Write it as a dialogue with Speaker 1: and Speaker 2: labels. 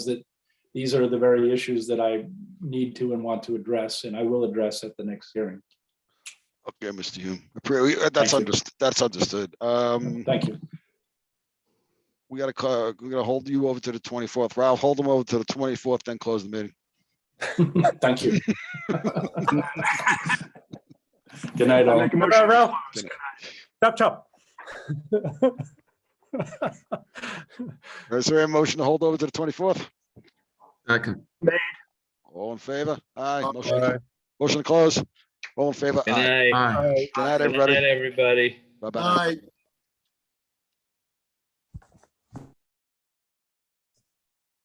Speaker 1: these are the very issues that I need to and want to address, and I will address at the next hearing.
Speaker 2: Okay, Mr. Hume. Appro- uh,
Speaker 1: Thank
Speaker 2: That's
Speaker 1: you.
Speaker 2: understood, that's understood. Um,
Speaker 1: Thank you.
Speaker 2: we gotta, ca- we gotta hold you over to the twenty-fourth. Ralph, hold them over to the twenty-fourth, then close the meeting.
Speaker 1: Thank you. Good night, all.
Speaker 3: Make a motion.
Speaker 4: Ralph. Chop, chop.
Speaker 2: Is there a motion to hold over to the twenty-fourth?
Speaker 5: Second,
Speaker 2: All in favor? Aye. Motion to- Motion to close. All in favor? Aye.
Speaker 6: Good night.
Speaker 5: aye.
Speaker 2: Good night,
Speaker 6: Good
Speaker 2: everybody.
Speaker 6: night, everybody.
Speaker 2: Bye-bye.